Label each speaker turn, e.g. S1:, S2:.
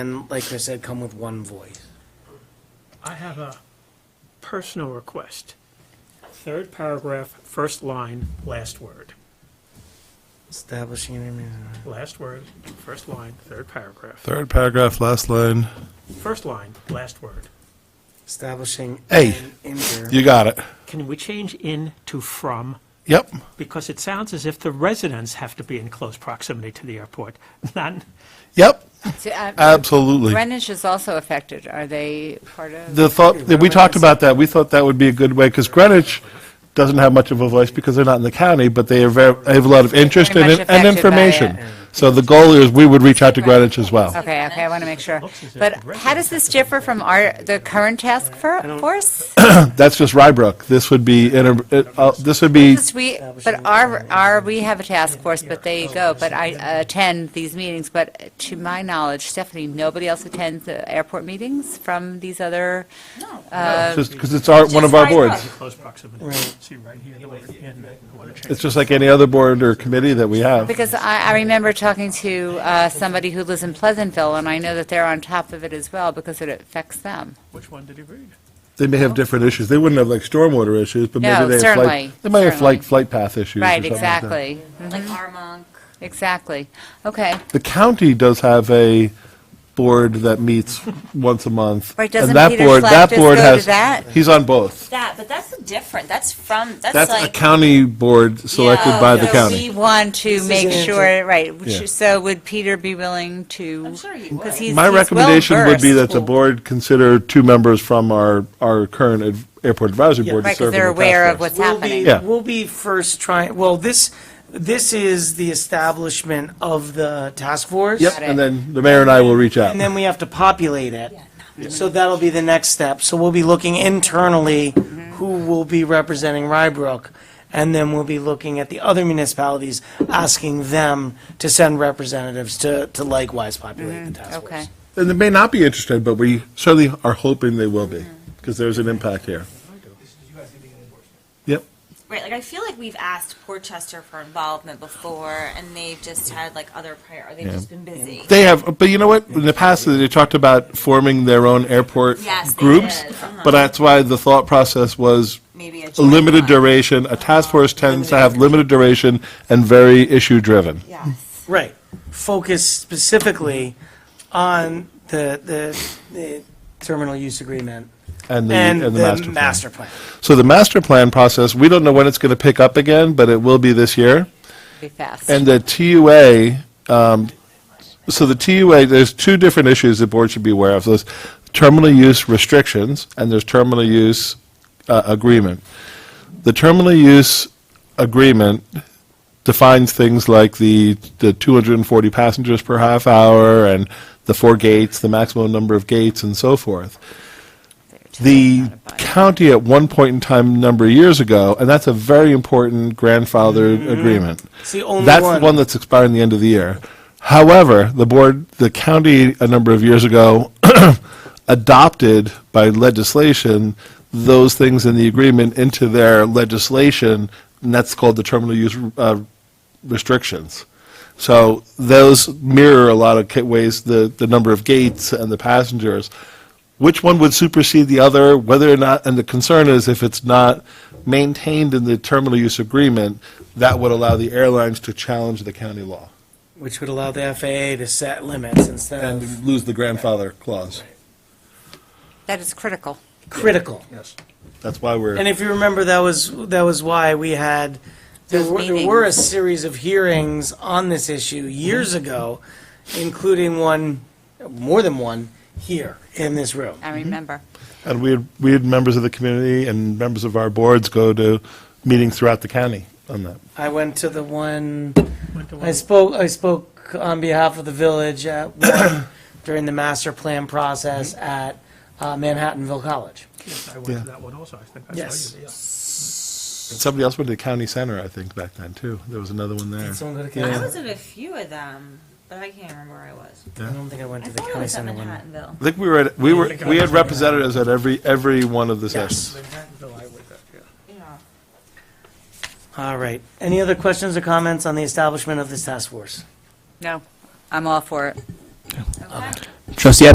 S1: And like Chris said, come with one voice.
S2: I have a personal request. Third paragraph, first line, last word.
S1: Establishing an immunity.
S2: Last word, first line, third paragraph.
S3: Third paragraph, last line.
S2: First line, last word.
S1: Establishing.
S3: Hey.
S1: an inter-
S3: You got it.
S2: Can we change in to from?
S3: Yep.
S2: Because it sounds as if the residents have to be in close proximity to the airport, not,
S3: Yep.
S4: So, uh,
S3: Absolutely.
S4: Greenwich is also affected. Are they part of?
S3: The thought that we talked about that, we thought that would be a good way because Greenwich doesn't have much of a voice because they're not in the county, but they are very, have a lot of interest
S4: Very
S3: and,
S4: much
S3: and
S4: affected by
S3: information.
S4: it.
S3: So the goal is we would reach out to Greenwich as well.
S4: Okay, okay, I want to make sure.
S2: looks as if
S4: But
S2: the rest
S4: how does this differ from our, the current task for- force?
S3: That's just Rybrook. This would be, inter- it- uh, this would be,
S4: Because we, but our, our, we have a task force, but they go, but I attend these meetings. But to my knowledge, Stephanie, nobody else attends the airport meetings from these other,
S3: because it's our, one of our boards.
S2: close proximity. See right here, the word in, I want to change.
S3: It's just like any other board or committee that we have.
S4: because I, I remember talking to uh, somebody who lives in Pleasantville, and I know that they're on top of it as well because it affects them.
S2: Which one did he read?
S3: They may have different issues. They wouldn't have like stormwater issues, but
S4: No,
S3: maybe they have
S4: certainly,
S3: flight, they might have
S4: certainly.
S3: flight, flight path issues or
S4: Right,
S3: something like that.
S4: exactly,
S5: like Armonk.
S4: exactly. Okay.
S3: The county does have a board that meets once a month.
S4: Right,
S3: and
S4: doesn't
S3: that
S4: Peter
S3: board-
S4: Fleck
S3: that
S4: just
S3: board
S4: go to
S3: has-
S4: that?
S3: He's on both.
S5: That, but that's different. That's from, that's
S3: That's a
S5: like,
S3: county board selected by the
S5: Yeah.
S4: We
S3: county.
S4: want to make sure, right, which-
S3: Yeah.
S4: so would Peter be willing to?
S5: I'm sure he
S4: Because
S5: would.
S4: he's,
S3: My
S4: he's
S3: recommendation would be
S4: well-versed.
S3: that the board consider two members from our, our current ad- airport advisory board to
S4: Right, because
S3: serve in
S4: they're
S3: the
S4: aware
S3: task
S4: of
S3: force.
S4: what's
S1: We'll be,
S4: happening.
S3: Yeah.
S1: we'll be first trying, well, this, this is the establishment of the task force.
S3: Yep, and then the mayor and I will reach out.
S1: And then we have to populate it. So that'll be the next step. So we'll be looking internally
S4: Mm-hmm.
S1: who will be representing Rybrook. And then we'll be looking at the other municipalities, asking them to send representatives to, to likewise populate the task
S4: Mm-hmm. Okay.
S1: force.
S3: And they may not be interested, but we certainly are hoping they will be, because there's an impact here. Yep.
S5: right, like I feel like we've asked Portchester for involvement before and they've just had like other prior, or they've just been busy.
S3: They have, but you know what? In the past, they talked about forming their own airport
S5: Yes, they
S3: groups.
S5: did. Uh-huh.
S3: But that's why the thought process was
S5: Maybe a
S3: a
S5: joint
S3: limited
S5: one.
S3: duration. A task force tends to have limited duration and very issue-driven.
S5: Yes.
S1: Right. Focus specifically on the, the, the terminal use agreement
S3: And the,
S1: and the
S3: plan.
S1: master plan.
S3: So the master plan process, we don't know when it's going to pick up again, but it will be this year.
S4: Be fast.
S3: And the TUA, um, so the TUA, there's two different issues the board should be aware of. There's terminal use restrictions, and there's terminal use uh, agreement. The terminal use agreement defines things like the, the 240 passengers per half hour, and the four gates, the maximum number of gates, and so forth. The county at one point in time, number of years ago, and that's a very important grandfathered agreement.
S1: It's the only
S3: That's the
S1: one.
S3: one that's expiring the end of the year. However, the board, the county, a number of years ago, adopted by legislation those things in the agreement into their legislation, and that's called the terminal use uh, restrictions. So those mirror a lot of ca- ways, the, the number of gates and the passengers. Which one would supersede the other, whether or not, and the concern is if it's not maintained in the terminal use agreement, that would allow the airlines to challenge the county law
S1: Which would allow the FAA to set limits instead of
S3: and lose the grandfather clause.
S4: That is critical.
S1: critical.
S3: Yes. That's why
S1: And
S3: we're,
S1: if you remember, that was, that was why we had, there
S4: Those
S1: were, there were a
S4: meetings.
S1: series of hearings on this issue years
S4: Mm-hmm.
S1: ago, including one, more than one, here in this room.
S3: Mhm.
S4: I remember.
S3: and we had, we had members of the community and members of our boards go to meetings throughout the county on that.
S1: I went to the one,
S2: Went
S1: I
S2: to one-
S1: spoke, I spoke on behalf of the village at one during the master plan process at uh, Manhattanville College.
S2: yes, I went to that one also, I think I saw you
S1: Yes.
S2: there.
S3: Somebody else went to the county center, I think, back then, too. There was another one there.
S1: Did someone go to
S5: I
S1: county?
S5: was at a few of them, but I can't remember where I was.
S1: I don't think I went
S5: I
S1: to the
S5: thought I
S1: county
S5: was at
S1: center one.
S5: Manhattanville.
S3: I think we were, at- we were,
S2: think I
S3: we had
S2: was there.
S3: representatives at every, every one of the sessions.
S2: Manhattanville, I was at, yeah.
S5: Yeah.
S1: All right. Any other questions or comments on the establishment of this task force?
S4: No, I'm all for it.
S5: Okay.
S6: Trustee